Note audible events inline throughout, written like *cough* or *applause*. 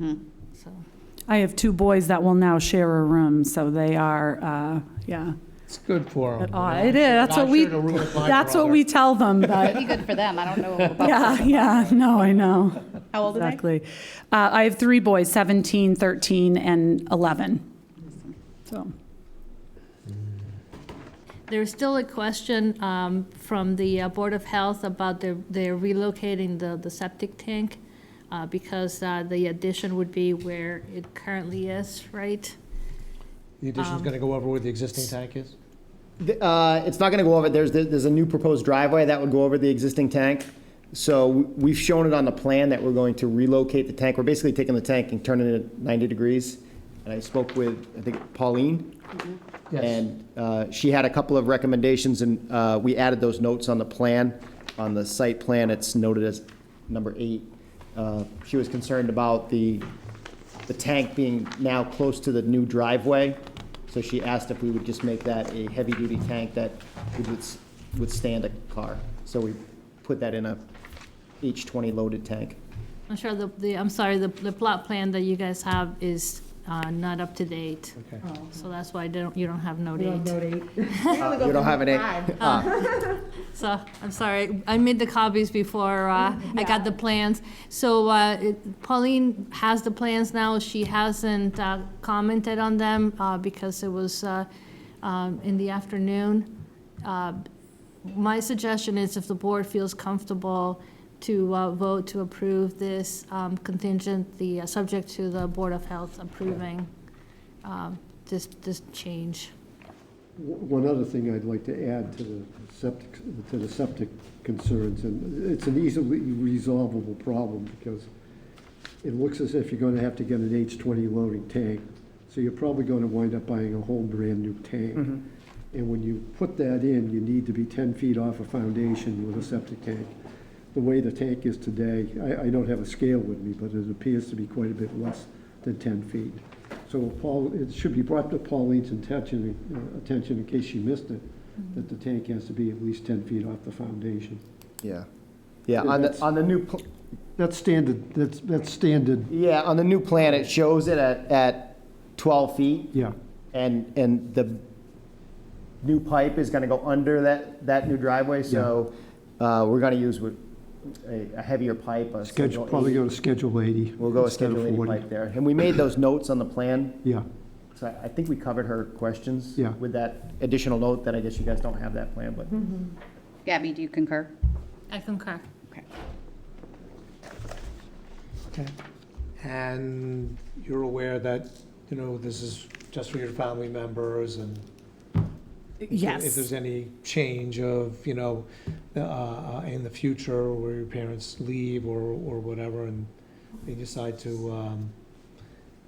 So, I have two boys that will now share a room, so they are, uh, yeah. It's good for At them. odds. It is, that's what we, that's what we tell them, but, pretty good for them. I don't know about. yeah, yeah, no, I know, How old are they? exactly. Uh, I have three boys, 17, 13, and 11. So, There's still a question um, from the uh, Board of Health about their they're relocating the, the septic tank uh, because uh, the addition would be where it currently is, right? The addition's going to go over where the existing tank is? The- uh, It's not going to go over, there's, there's a new proposed driveway that would go over the existing tank. So we've shown it on the plan that we're going to relocate the tank. We're basically taking the tank and turning it at 90 degrees. And I spoke with, I think, Pauline, and uh, she had a couple of recommendations, and uh, we added those notes on the plan. On the site plan, it's noted as number eight. Uh, She was concerned about the, the tank being now close to the new driveway, so she asked if we would just make that a heavy-duty tank that would withs- withstand a car. So we put that in a H20 loaded tank. I'm sure the, the I'm sorry, the, the plot plan that you guys have is uh, not up to date. Okay. So that's why they don't, Oh, you don't have no date. Uh, You don't have Ah. an A. So, I'm sorry, I made the copies before uh, I got the plans. So uh, it- Pauline has the plans now, she hasn't uh, commented on them uh, because it was uh, um, in the afternoon. Uh, My suggestion is if the board feels comfortable to uh, vote to approve this um, contingent, the, uh, subject to the Board of Health approving um, this, this change. One other thing I'd like to add to the septic, to the septic concerns, and it's an easily resolvable problem because it looks as if you're gonna have to get an H twenty loading tank. So you're probably gonna wind up buying a whole brand-new tank. And when you put that in, you need to be ten feet off a foundation with a septic tank. The way the tank is today, I, I don't have a scale with me, but it appears to be quite a bit less than ten feet. So Paul, it should be brought to Pauline's attention, uh, attention in case she missed it, that the tank has to be at least ten feet off the foundation. Yeah. Yeah, on the, on the new, pl- That's standard, that's, that's standard, yeah, on the new plan, it shows it at, at 12 feet. yeah. And, and the new pipe is gonna go under that, that new driveway, so, uh, we're gonna use with a, a heavier pipe, a Schedule, schedule probably eight. go to schedule eighty. We'll go a instead of schedule eighty 40. pipe there. And we made those notes on the plan, Yeah, so I, I think we covered her questions. Yeah. With that additional note that I guess you guys don't have that plan, but Gabby, do you concur? I concur. Okay. Okay. And you're aware that, you know, this is just for your family members and if yes, there's any change of, you know, uh, in the future where your parents leave or, or whatever and they decide to, um,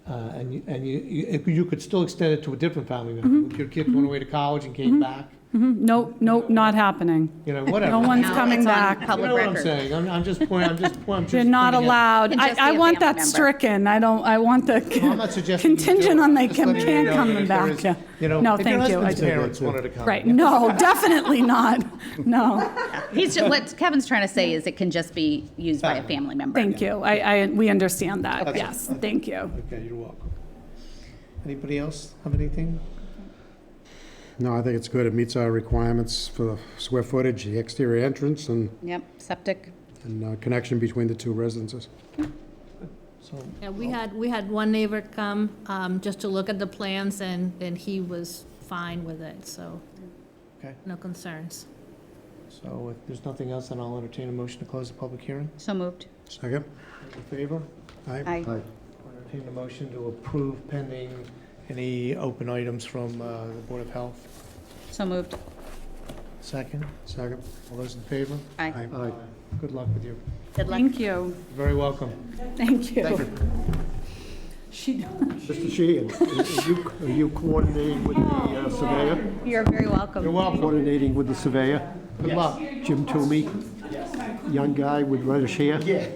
uh, and you, and you- you, if you could still extend it to a different family Mm-hmm. member. If your kids went away to college and came back, Mhm. no, no, not happening. you know, whatever. No one's Now coming it's on back. You Public know what I'm record. saying? I'm, I'm just pointing, I'm *laughs* just pointing. I'm They're just not pointing out- allowed. Can I, just I be a want family that member. stricken. I don't, I want the Well, I'm not suggesting you do contingent it. on they I'm just can, letting you can know come that if back. there is- yeah. You know, No, if your thank you. I husband's do. parents wanted to come. Right, no, definitely not. No. He's just, what Kevin's trying to say is it can just be used by a family member. Thank you. I, I, we understand that. Okay. Yes, thank you. Okay, you're welcome. Anybody else have anything? No, I think it's good. It meets our requirements for the square footage, the exterior entrance, and, Yep, septic. and uh, connection between the two residences. So, Yeah, we had, we had one neighbor come, um, just to look at the plans and, and he was fine with it, so. Okay. No concerns. so if there's nothing else, then I'll entertain a motion to close the public hearing. So moved. Second? In favor? Aye. Aye. I'll Entertain a motion to approve pending any open items from uh, the Board of Health. So moved. Second, Second. all those in favor? Aye. Aye. Good luck with you. Good luck. Thank you. You're Very welcome. Thank you. She, Mr. Sheehan, are you, are you coordinating with the uh, surveyor? You're very welcome. You're welcome. Coordinating with the surveyor? Good luck. Jim Toomey? Young guy with reddish hair? Yeah.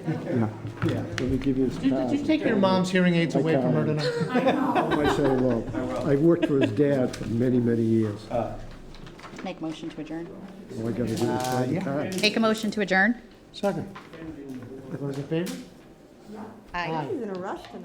Yeah, let me give you his Did you card. take your mom's hearing aids away from her tonight? I say hello. I worked for his dad for many, many years. All Make motion to adjourn. I gotta do is sign the card. Make a motion to adjourn. Second. All those in favor? Aye. Aye. He's in a rush tonight.